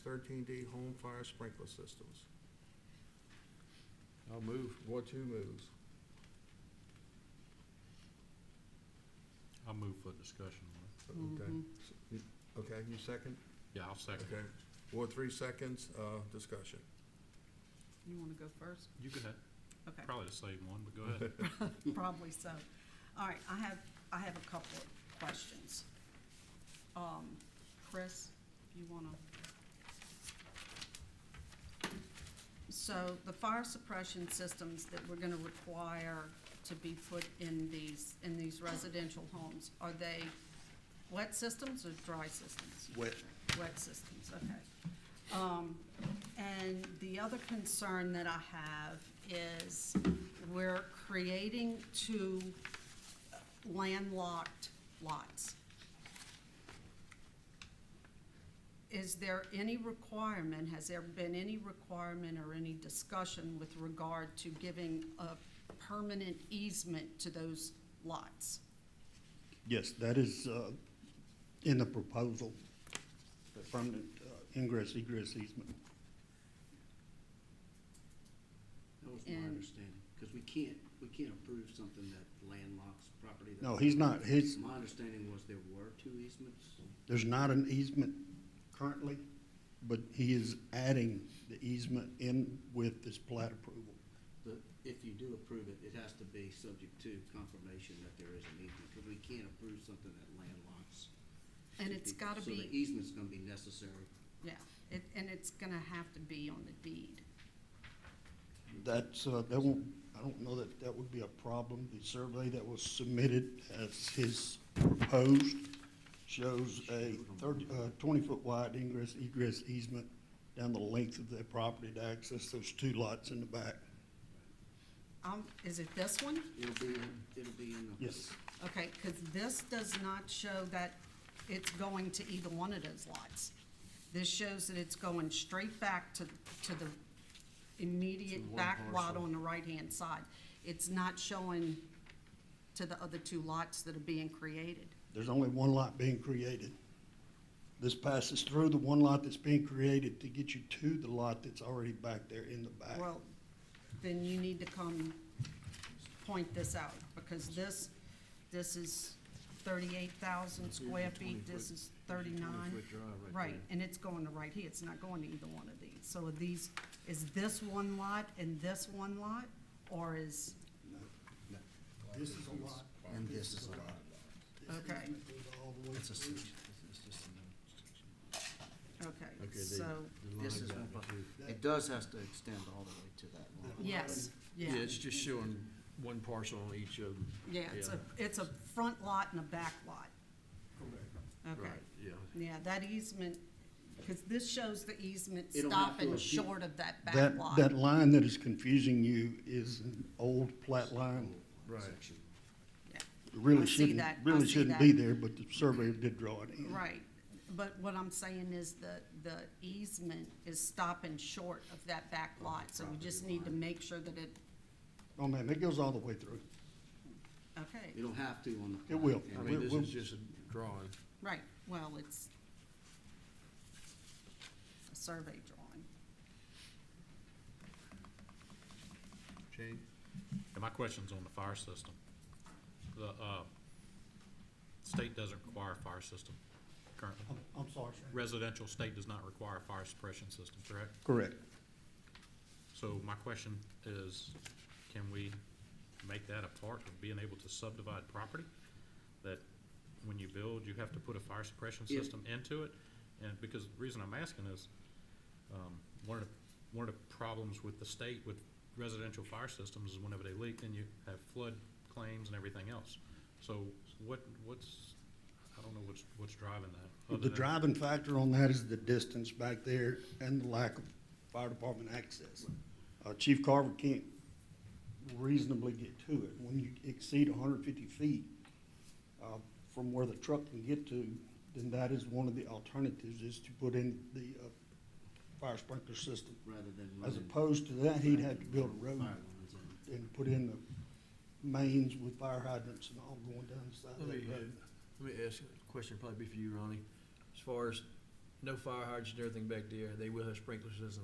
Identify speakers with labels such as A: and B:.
A: thirteen D home fire sprinkler systems.
B: I'll move.
A: Ward two moves.
B: I'll move for discussion. Laura.
A: Okay.
C: Mm-hmm.
A: S- you- Okay, you second?
B: Yeah, I'll second.
A: Okay. Ward three seconds, uh, discussion.
C: You wanna go first?
B: You could have,
C: Okay,
B: probably the same one, but go ahead.
C: probably so. All right, I have, I have a couple of questions. Um, Chris, if you wanna. So the fire suppression systems that we're gonna require to be put in these, in these residential homes, are they wet systems or dry systems?
D: Wet.
C: Wet systems, okay. Um, and the other concern that I have is we're creating two landlocked lots. Is there any requirement, has there been any requirement or any discussion with regard to giving a permanent easement to those lots?
D: Yes, that is uh, in the proposal, the permanent uh, ingress egress easement.
E: That was
C: And-
E: my understanding, because we can't, we can't approve something that landlocks property. that-
D: No, he's not, his,
E: My understanding was there were two easements.
D: there's not an easement currently, but he is adding the easement in with this plat approval.
E: The, if you do approve it, it has to be subject to confirmation that there is an easement, because we can't approve something that landlocks.
C: And
E: two
C: it's
E: people.
C: gotta
E: So
C: be.
E: the e- easement's gonna be necessary.
C: Yeah, it, and it's gonna have to be on the deed.
D: That's, uh, that won't, I don't know that that would be a problem. The survey that was submitted as his proposed shows a thirty, uh, twenty-foot wide ingress egress easement down the length of the property to access those two lots in the back.
C: Um, is it this one?
E: It'll be, in- it'll be in the.
D: Yes,
C: Okay, cause this does not show that it's going to either one of those lots. This shows that it's going straight back to, to the immediate back lot on the right-hand side. It's not showing to the other two lots that are being created.
D: there's only one lot being created. This passes through the one lot that's being created to get you to the lot that's already back there in the back.
C: Well, then you need to come point this out, because this, this is thirty-eight thousand square feet, this is thirty-nine. Right, and it's going to right here, it's not going to either one of these. So are these, is this one lot and this one lot, or is,
D: This is a lot.
E: And this is a lot.
D: This
C: Okay.
D: easement goes all the way
E: It's a
D: through.
E: section, it's just a.
C: okay, so,
E: This is, it does has to extend all the way to that line.
C: yes, yeah.
F: Yeah, it's just showing one parcel on each of them.
C: Yeah, it's a, it's a front lot and a back lot. Okay,
F: Right, yeah.
C: yeah, that easement, because this shows the easement
E: It'll have to
C: stopping
E: appeal.
C: short of that back
D: That,
C: lot.
D: that line that is confusing you is an old plat line.
F: Right.
E: Section.
C: Yeah,
D: It Really
C: I see
D: shouldn't,
C: that. I
D: really
C: see
D: shouldn't be
C: that.
D: there, but the surveyor did draw it in.
C: Right, but what I'm saying is the, the easement is stopping short of that back lot, so we just need to make sure that it,
D: Oh, man, it goes all the way through.
C: okay,
E: You don't have to on the.
D: It will.
E: plan.
F: I mean, this
D: We'll-
F: is just a drawing.
C: right, well, it's a survey drawing.
A: Jane?
B: And my question's on the fire system. The, uh, state doesn't require a fire system currently.
D: I'm, I'm sorry, sir.
B: Residential state does not require a fire suppression system, correct?
D: Correct.
B: So my question is, can we make that a part of being able to subdivide property? That when you build, you have to put a fire suppression
E: Yeah.
B: system into it? And because the reason I'm asking is, um, one of, the- one of the problems with the state with residential fire systems is whenever they leak, then you have flood claims and everything else. So what, what's, I don't know what's, what's driving that. other
D: The
B: than-
D: driving factor on that is the distance back there and the lack of fire department access. Uh, Chief Carver can't reasonably get to it. When you exceed hundred fifty feet, uh, from where the truck can get to, then that is one of the alternatives is to put in the, uh, fire sprinkler system.
E: Rather than.
D: As
E: running
D: opposed to that, he'd have to build a
E: fire
D: road
E: lines in.
D: and put in the mains with fire hydrants and all going down the side of
F: Let me,
D: that road.
F: uh, let me ask a question, probably be for you, Ronnie. As far as no fire hydrants and everything back there, they will have sprinkler systems